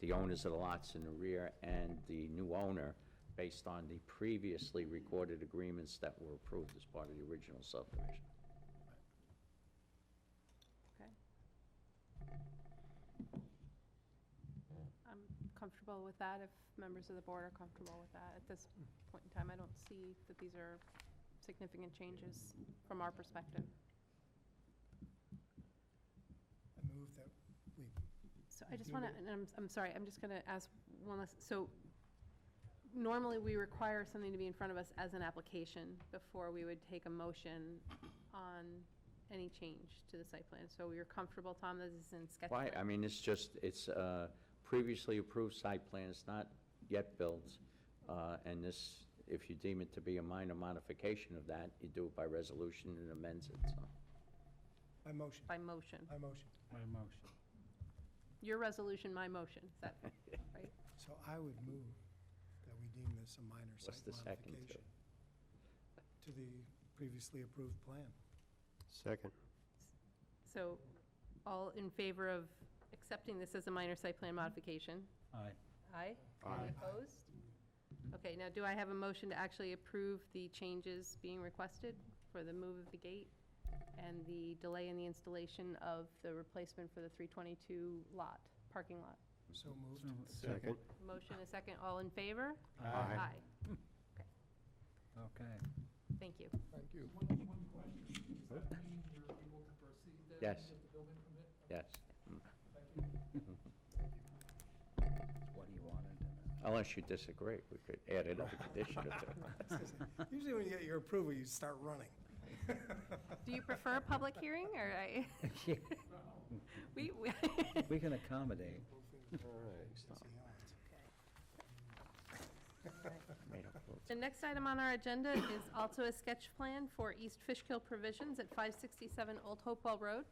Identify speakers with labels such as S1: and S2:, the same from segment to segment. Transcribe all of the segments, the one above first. S1: the owners of the lots in the rear and the new owner based on the previously recorded agreements that were approved as part of the original subdivision.
S2: Okay. I'm comfortable with that, if members of the board are comfortable with that. At this point in time, I don't see that these are significant changes from our perspective.
S3: I move that we,
S2: So I just want to, and I'm, I'm sorry, I'm just going to ask one last, so normally we require something to be in front of us as an application before we would take a motion on any change to the site plan. So you're comfortable, Tom, that this is in sketch
S1: Why,
S2: plan?
S1: I mean, it's just, it's a previously approved site plan, it's not yet built, uh, and this, if you deem it to be a minor modification of that, you do it by resolution and amends it, so.
S3: I motion,
S2: By motion.
S3: I motion.
S4: My motion.
S2: Your resolution, my motion, is that right?
S3: So I would move that we deem this a minor
S1: What's
S3: site
S1: the second to?
S3: modification to the previously approved plan.
S5: Second.
S2: So all in favor of accepting this as a minor site plan modification?
S4: Aye.
S2: Aye.
S5: Aye.
S2: Any opposed? Okay, now do I have a motion to actually approve the changes being requested for the move of the gate and the delay in the installation of the replacement for the 322 lot, parking lot?
S3: Mm-hmm. So moved.
S5: Second.
S2: Motion, a second, all in favor?
S5: Aye.
S2: Okay,
S4: Okay.
S2: thank you.
S3: Thank you.
S6: One, one question, does that mean you're able to proceed then? and
S1: Yes.
S6: Get the building permit?
S1: Yes,
S6: Thank you.
S4: What do you want to do?
S1: unless you disagree, we could add another condition or two.
S3: Usually when you get your approval, you start running.
S2: Do you prefer a public hearing, or I? We, we.
S4: We can accommodate.
S5: All right.
S1: Made up rules.
S2: The next item on our agenda is also a sketch plan for East Fishkill Provisions at 567 Old Hopewell Road.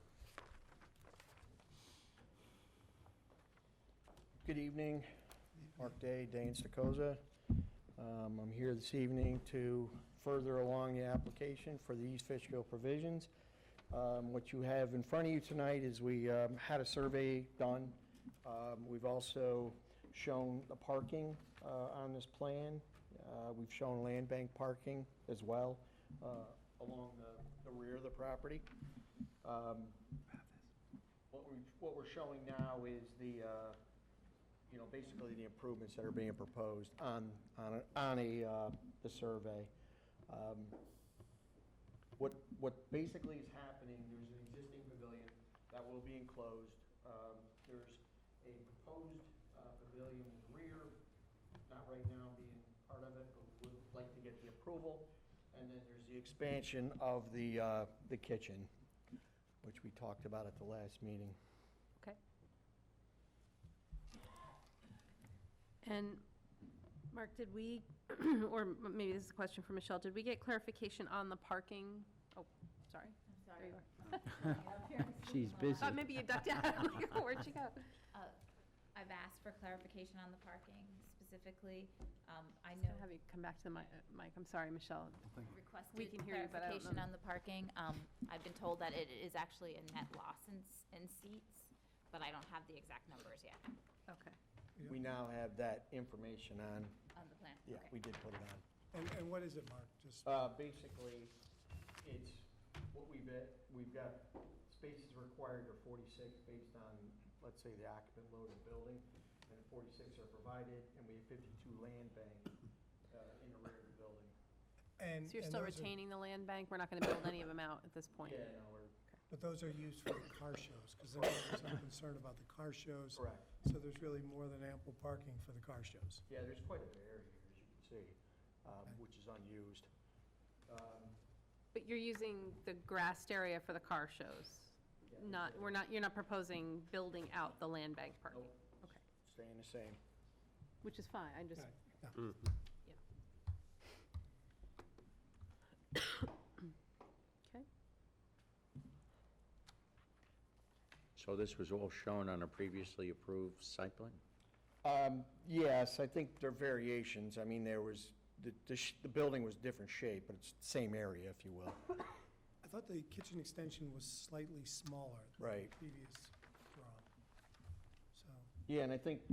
S7: Good evening, Mark Day, Dane Stokoza. Um, I'm here this evening to further along the application for the East Fishkill provisions. Um, What you have in front of you tonight is we um, had a survey done. Um, We've also shown the parking uh, on this plan. Uh, We've shown land bank parking as well uh, along the- the rear of the property. Um, What we- what we're showing now is the, uh, you know, basically the improvements that are being proposed on, on, a- on a, uh, the survey. Um, What, what basically is happening, there's an existing pavilion that will be enclosed. Um, There's a proposed uh, pavilion in the rear, not right now being part of it, but would like to get the approval. And then there's the expansion of the, uh, the kitchen, which we talked about at the last meeting.
S2: Okay. And, Mark, did we, or m- maybe this is a question for Michelle, did we get clarification on the parking? Oh, sorry. There you are.
S4: She's busy.
S2: Thought maybe you ducked out. I'm like, Where'd you go?
S8: Uh, I've asked for clarification on the parking specifically. Um, I
S2: I'm going
S8: know
S2: to have you come back to the mi- uh, mic. I'm sorry, Michelle. We
S8: requested
S2: can hear you, but I don't
S8: clarification
S2: know.
S8: on the parking. Um, I've been told that it is actually a net loss in, s- in seats, but I don't have the exact numbers yet
S2: Okay.
S7: We now have that information on,
S8: on the plan.
S7: yeah, we
S8: Okay.
S7: did put it on.
S3: And, and what is it, Mark? Just,
S7: Uh, basically, it's what we've, got- we've got, spaces required are forty-six based on, let's say, the occupant load of the building, and forty-six are provided, and we have fifty-two land bank, uh, in the rear of the building.
S3: and.
S2: So you're
S3: and
S2: still
S3: those are-
S2: retaining the land bank? We're not going to build any of them out at this point?
S7: Yeah, no, we're,
S3: But those are used for the car shows, because there's some concern about the car shows.
S7: correct.
S3: So there's really more than ample parking for the car shows.
S7: Yeah, there's quite a bit of area here, as you can see, um, which is unused. Um,
S2: But you're using the grassed area for the car shows?
S7: Yeah.
S2: Not, we're not, you're not proposing building out the land bank parking?
S7: Nope.
S2: Okay,
S7: Staying the same.
S2: which is fine, I just,
S3: Right, yeah.
S2: you Okay,
S1: So this was all shown on a previously approved site plan?
S7: Um, Yes, I think there are variations. I mean, there was, the, the sh- the building was different shape, but it's the same area, if you will.
S3: I thought the kitchen extension was slightly smaller. than the
S7: Right.
S3: Previous drawing. So.
S7: Yeah, and I think